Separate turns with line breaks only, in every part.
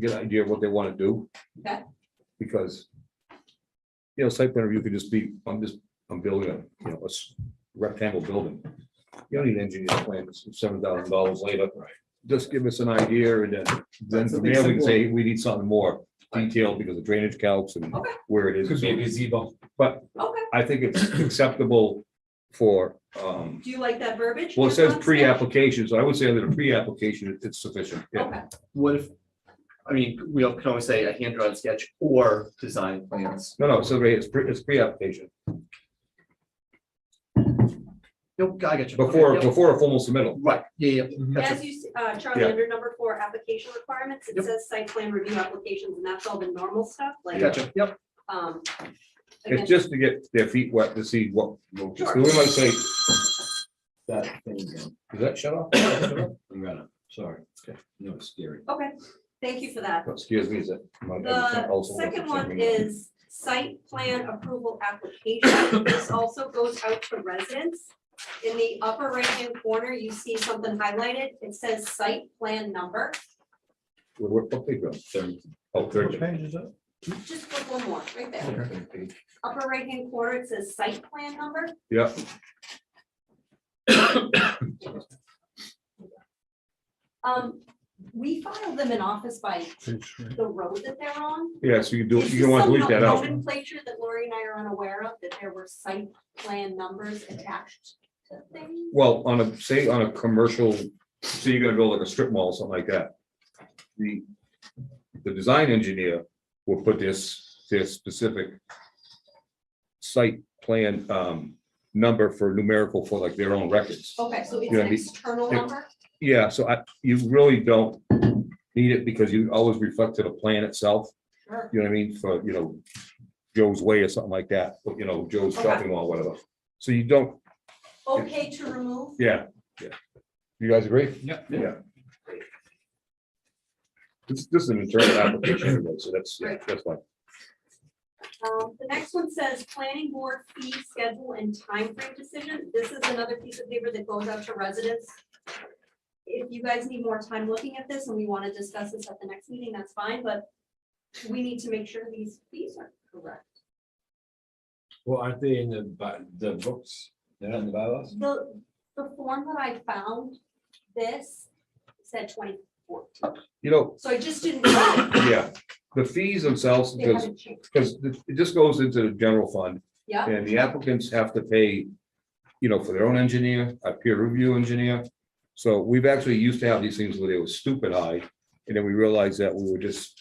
get an idea of what they want to do.
Okay.
Because, you know, site plan review could just be, I'm just, I'm building a, you know, a s- rectangle building. You don't need engineering plans, seven thousand dollars later. Right. Just give us an idea and then, then from there we can say, we need something more detailed because of drainage calcs and
Okay.
where it
Could
is.
be a gazebo.
But
Okay,
I think it's acceptable for, um,
do you like that verbiage?
well, it says
Constance?
pre-application, so I would say that a pre-application it- it's sufficient. Yeah,
Okay,
What if, I mean, we all can always say a hand-drawn sketch or design plans.
no, no, so it's pre, it's pre-application,
Nope, I got you.
before,
Okay, yep.
before a formal submittal.
Right, yeah, yeah. that's
as
it.
you, s- uh, Charlie,
Yeah.
under number four, application requirements, it
Yep.
says site plan review applications, and that's all the normal stuff, like,
Gotcha, yep,
um. again,
It's just to get their feet wet to see what, so
Sure.
we might say,
That thing, again.
does that shut off?
I'm gonna, sorry. No, it's scary.
Okay, thank you for that.
Excuse me, is it? my-
The
also-
second one is site plan approval application. This also goes out to residents. In the upper right-hand corner, you see something highlighted. It says site plan number.
What- what- what page are we on? Oh, third. page.
Just click one more, right there.
Third page.
Upper right-hand corner, it says site plan number.
Yeah,
Um, we file them in office by the road that they're on.
yeah, so you do,
It's
you
just
don't want to
some
leave that out.
Nomenclature that Lori and I are unaware of, that there were site plan numbers attached to things.
Well, on a, say, on a commercial, say you're gonna build like a strip mall, something like that. The, the design engineer will put this, this specific site plan, um, number for numerical for like their own records.
Okay, so it's
Yeah,
an
the-
external
it-
number?
Yeah, so I, you really don't need it because you always reflect to the plan itself,
Sure.
you know what I mean, for, you know, Joe's Way or something like that, but you know, Joe's
Okay.
Shopping Mall, whatever. So you don't,
Okay to remove?
yeah, yeah. You guys agree?
Yeah.
Yeah. This, this is an internal application, anyway, so that's, yeah, that's fine.
Um, the next one says planning board fee schedule and timeframe decision. This is another piece of paper that goes out to residents. If you guys need more time looking at this and we want to discuss this at the next meeting, that's fine, but we need to make sure these fees are correct.
Well, aren't they in the, bi- the books? They're not in the bylaws?
The, the form that I found, this said twenty fourteen,
You know,
so I just didn't, they
yeah, the fees themselves, because,
haven't changed.
because it just goes into the general fund,
Yeah,
and the applicants have to pay, you know, for their own engineer, a peer review engineer. So we've actually used to have these things where they were stupid high, and then we realized that we were just,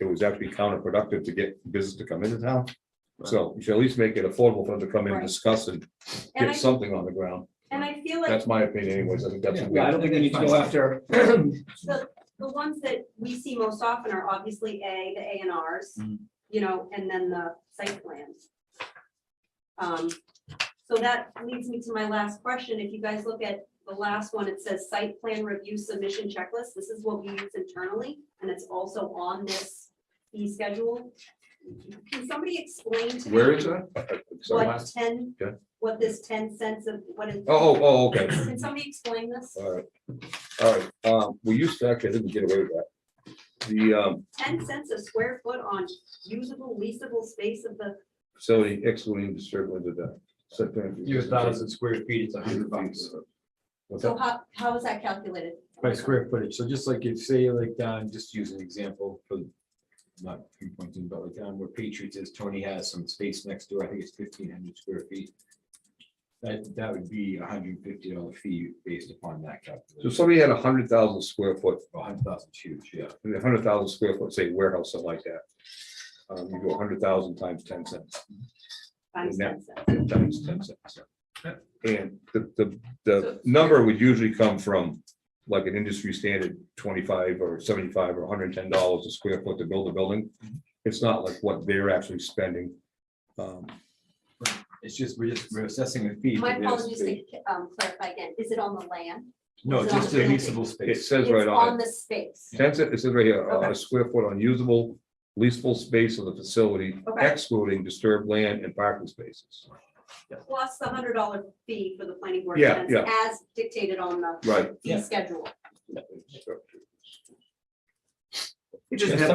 it was actually counterproductive to get business to come into town. So you should at least make it affordable for them to come in and
Right.
discuss and get
and I,
something on the ground.
and I feel like
That's my opinion anyways, I think that's. a
Yeah, I
weird-
don't think we need to go after.
The, the ones that we see most often are obviously A, the A and Rs,
Mm-hmm.
Mhm.
you know, and then the site plans. Um, so that leads me to my last question. If you guys look at the last one, it says site plan review submission checklist. This is what we use internally, and it's also on this fee schedule. Can somebody explain to me?
that? Uh, uh, sorry.
What ten,
Okay.
what this ten cents of, what is?
Oh, oh, oh, okay,
Can somebody explain this?
all right. All right, um, we used to actually, I didn't get away with that. The um
ten cents a square foot on usable, leasable space of the,
facility excluding disturbance of the. site plan.
You have thousand square feet, it's a hundred bucks
What's
so
that?
how, how is that calculated?
by square footage. So just like if, say, like, down, just use an example for not pinpointing, but like down where Patriots is, Tony has some space next door. I think it's fifteen hundred square feet. That, that would be a hundred and fifty dollar fee based upon that
So
calculation.
somebody had a hundred thousand square foot,
A hundred thousand is huge, yeah.
a hundred thousand square foot, say warehouse, something like that. Um, you go a hundred thousand times ten cents,
Times
Yeah.
ten cents.
times ten cents.
Yeah.
And the the the number would usually come from like an industry standard twenty-five or seventy-five or hundred and ten dollars a square foot to build a building. It's not like what they're actually spending. Um,
It's just, we're just, we're assessing the fee.
My
for this
apologies
space.
to um, clarify again, is it on the land?
No,
It's
just
not
a
a building.
leasable
It
space.
says right
It's
on it,
the space,
ten cents, it says right here, uh,
Okay.
a square foot unusable leasable space of the facility
Okay.
excluding disturbed land and parking spaces.
plus the hundred dollar fee for the planning board.
Yeah,
events As dictated on the
Right.
fee schedule.
It just
Yeah,
has